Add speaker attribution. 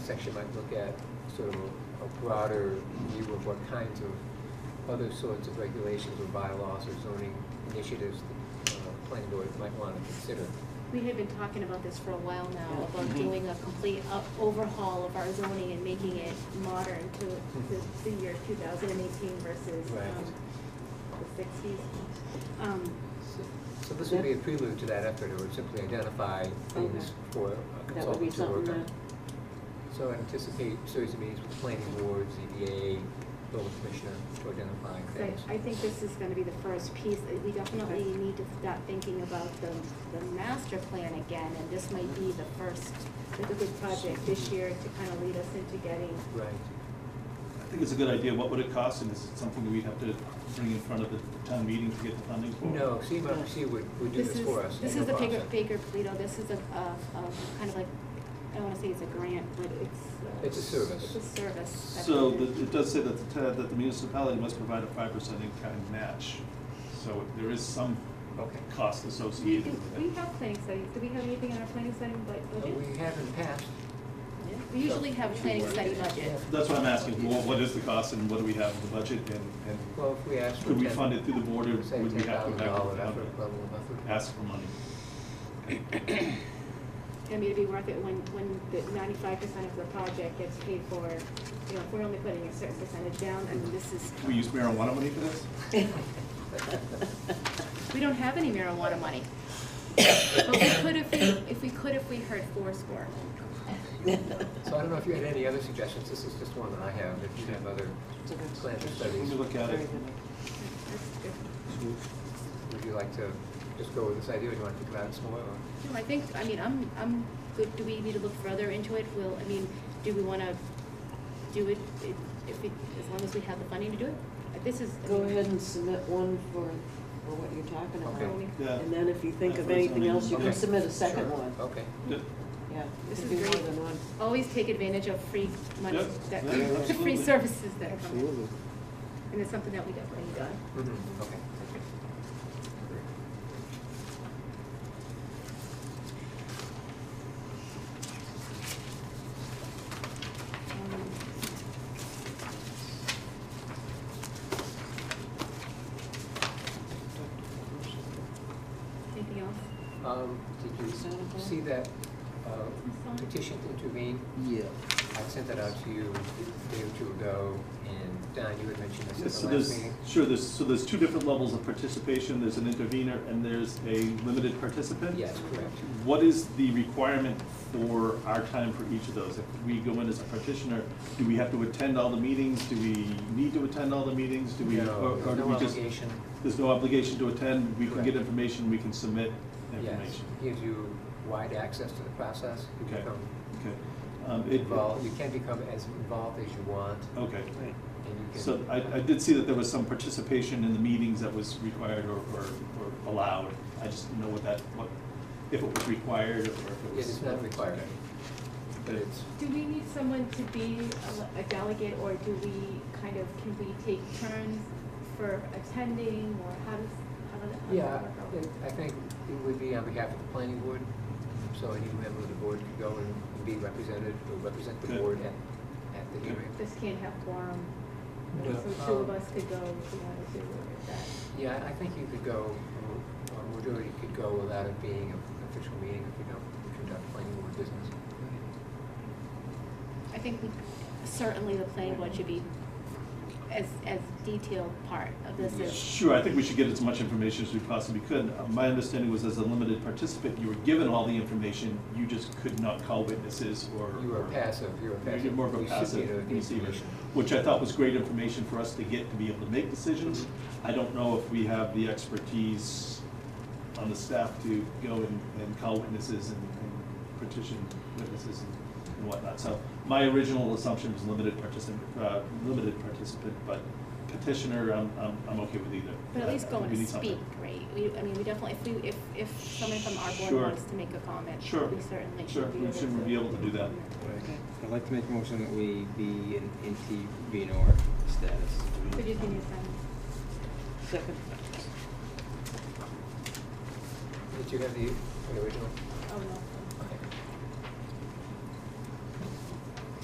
Speaker 1: section might look at sort of a- a broader view of what kinds of other sorts of regulations or bylaws or zoning initiatives the uh, planning board might want to consider.
Speaker 2: We had been talking about this for a while now,
Speaker 3: Yeah. Mm-hmm.
Speaker 2: about doing a complete up- overhaul of our zoning and making it modern to the,
Speaker 3: Mm-hmm.
Speaker 2: the year two thousand and eighteen versus,
Speaker 1: Right.
Speaker 2: um, the sixties. Um,
Speaker 1: So- So this would be a prelude to that effort, it would simply identify things
Speaker 3: Okay.
Speaker 1: for a
Speaker 3: That would be
Speaker 1: consultant to
Speaker 3: something
Speaker 1: work on.
Speaker 3: that,
Speaker 1: So anticipate series of meetings with the planning board, ZBA, building commissioner to identify
Speaker 2: so
Speaker 1: things.
Speaker 2: I think this is gonna be the first piece, Uh, we definitely
Speaker 3: Okay.
Speaker 2: need to start thinking about the, the master plan again, and this might be the first, like a good project this year to kind of lead us into getting
Speaker 1: Right,
Speaker 4: I think it's a good idea. What would it cost, and is it something that we'd have to bring in front of the town meeting to get the funding for?
Speaker 1: no, CMRPC would, would do
Speaker 2: This
Speaker 1: this
Speaker 2: is,
Speaker 1: for us.
Speaker 2: this
Speaker 1: no
Speaker 2: is the
Speaker 1: cost.
Speaker 2: Baker, Baker Polito, this is a, a, a kind of like, I don't wanna say it's a grant, but it's. uh,
Speaker 1: It's a service.
Speaker 2: It's a service. that's
Speaker 4: So
Speaker 2: what
Speaker 4: the-
Speaker 2: it is.
Speaker 4: it does say that the, ta- that the municipality must provide a five percent in-kind match, so there is some
Speaker 1: Okay.
Speaker 4: cost
Speaker 2: Do you
Speaker 4: associated
Speaker 2: think,
Speaker 4: with
Speaker 2: we
Speaker 4: it.
Speaker 2: have planning studies, do we have anything in our planning study bu-
Speaker 1: Uh,
Speaker 2: budget?
Speaker 1: We haven't passed,
Speaker 2: We usually have a planning study budget.
Speaker 4: That's what I'm asking, Wha- what is the cost and what do we have in the budget, and, and
Speaker 1: well, if we asked for
Speaker 4: could we
Speaker 1: ten-
Speaker 4: fund it through the board, or
Speaker 1: Say
Speaker 4: would we
Speaker 1: ten
Speaker 4: have to
Speaker 1: thousand
Speaker 4: go
Speaker 1: dollar
Speaker 4: back
Speaker 1: effort,
Speaker 4: and
Speaker 1: level of effort.
Speaker 4: ask for money?
Speaker 2: I mean, it'd be worth it when, when the ninety-five percent of the project gets paid for, you know, if we're only putting a certain percentage down, I mean, this is,
Speaker 4: We use marijuana money for this?
Speaker 2: we don't have any marijuana money. But we could if we, if we could if we heard fourscore.
Speaker 1: So I don't know if you had any other suggestions, this is just one that I have, if you have other
Speaker 3: It's a good
Speaker 1: plans or
Speaker 4: Let
Speaker 1: studies,
Speaker 4: me look at
Speaker 3: very
Speaker 4: it.
Speaker 3: good.
Speaker 2: That's good.
Speaker 1: would you like to just go with this idea, or do you want to think about it some more? or-
Speaker 2: No, I think, I mean, I'm, I'm good, do we need to look further into it? Will, I mean, do we wanna do it, it- if we, as long as we have the funding to do it? Uh, This is. I
Speaker 3: Go
Speaker 2: mean,
Speaker 3: ahead and submit one for, for what you're talking
Speaker 1: Okay.
Speaker 3: about.
Speaker 4: Yeah.
Speaker 3: And then if you think
Speaker 4: Yeah,
Speaker 3: of
Speaker 4: for
Speaker 3: anything
Speaker 4: zoning.
Speaker 3: else, you
Speaker 1: Okay.
Speaker 3: can submit a
Speaker 1: Sure.
Speaker 3: second one.
Speaker 4: Oh.
Speaker 1: Okay,
Speaker 4: Yeah.
Speaker 3: Yeah,
Speaker 2: This
Speaker 3: you
Speaker 2: is
Speaker 3: can do
Speaker 2: great.
Speaker 3: more than one.
Speaker 2: Always take advantage of free money,
Speaker 4: Yeah,
Speaker 2: that,
Speaker 4: yeah,
Speaker 2: the free
Speaker 4: absolutely.
Speaker 2: services that come. in.
Speaker 5: Absolutely.
Speaker 2: And it's something that we definitely need done.
Speaker 1: Mhm. okay.
Speaker 2: Um, Anything else?
Speaker 1: Um, did you
Speaker 3: Sound okay?
Speaker 1: see that uh,
Speaker 2: Sound.
Speaker 1: petition to intervene?
Speaker 5: Yeah.
Speaker 1: I sent that out to you a day or two ago, and Don, you had mentioned
Speaker 4: Yeah,
Speaker 1: this
Speaker 4: So
Speaker 1: in the last
Speaker 4: there's,
Speaker 1: meeting.
Speaker 4: sure, there's, so there's two different levels of participation, there's an intervener and there's a limited participant?
Speaker 1: Yes, correct.
Speaker 4: What is the requirement for our time for each of those? If we go in as a petitioner, do we have to attend all the meetings? Do we need to attend all the meetings? Do we,
Speaker 1: No,
Speaker 4: or or do
Speaker 1: no
Speaker 4: we just?
Speaker 1: obligation.
Speaker 4: There's no obligation to attend, we can
Speaker 1: Correct.
Speaker 4: get information, we can submit
Speaker 1: Yes,
Speaker 4: information.
Speaker 1: gives you wide access to the process. You
Speaker 4: Okay.
Speaker 1: become
Speaker 4: Okay. Um, it-
Speaker 1: involved, you can become as involved as you want,
Speaker 4: Okay.
Speaker 1: and you can.
Speaker 4: So I, I did see that there was some participation in the meetings that was required or, or, or allowed. I just didn't know what that, what, if it was required or if it
Speaker 1: It
Speaker 4: was.
Speaker 1: is not required,
Speaker 4: Okay.
Speaker 1: but it's,
Speaker 2: Do we need someone to be a- a delegate, or do we kind of, can we take turns for attending, or how does, how does how does
Speaker 1: yeah,
Speaker 2: that work out?
Speaker 1: it- I think it would be on behalf of the planning board, so any member of the board could go and be represented, or represent the
Speaker 4: Good.
Speaker 1: board at, at the
Speaker 4: Good.
Speaker 1: hearing.
Speaker 2: This can't have quorum,
Speaker 1: No,
Speaker 2: so two of
Speaker 1: um,
Speaker 2: us could go if we wanted to, or if that.
Speaker 1: Yeah, I- I think you could go, or- or majority could go without it being an official meeting if you don't conduct planning board business.
Speaker 2: I think we- certainly the planning board should be as, as detailed part of this as.
Speaker 4: Sure, I think we should get as much information as we possibly could. Uh, My understanding was as a limited participant, you were given all the information, you just could not call witnesses or.
Speaker 1: You are
Speaker 4: or-
Speaker 1: passive, you're a
Speaker 4: You're
Speaker 1: passive.
Speaker 4: more of a
Speaker 1: You should
Speaker 4: passive
Speaker 1: be the
Speaker 4: receiver,
Speaker 1: information.
Speaker 4: which I thought was great information for us to get to be able to make decisions. I don't know if we have the expertise on the staff to go and, and call witnesses and and petition witnesses and- and whatnot. So my original assumption was limited participant, uh, limited participant, but petitioner, I'm, I'm, I'm okay with either.
Speaker 2: But at least go
Speaker 4: Uh, we
Speaker 2: and
Speaker 4: need something.
Speaker 2: speak, right? We, I mean, we definitely, if we, if, if someone from our board
Speaker 4: Sure.
Speaker 2: wants to make a comment,
Speaker 4: Sure.
Speaker 2: we certainly
Speaker 4: Sure.
Speaker 2: should be
Speaker 4: We
Speaker 2: able to.
Speaker 4: should be able to do that.
Speaker 5: I'd like to make a motion that we be an intervenor status.
Speaker 2: Could you give me a second?
Speaker 3: Second.
Speaker 1: Did you have the the original?
Speaker 2: Oh, no.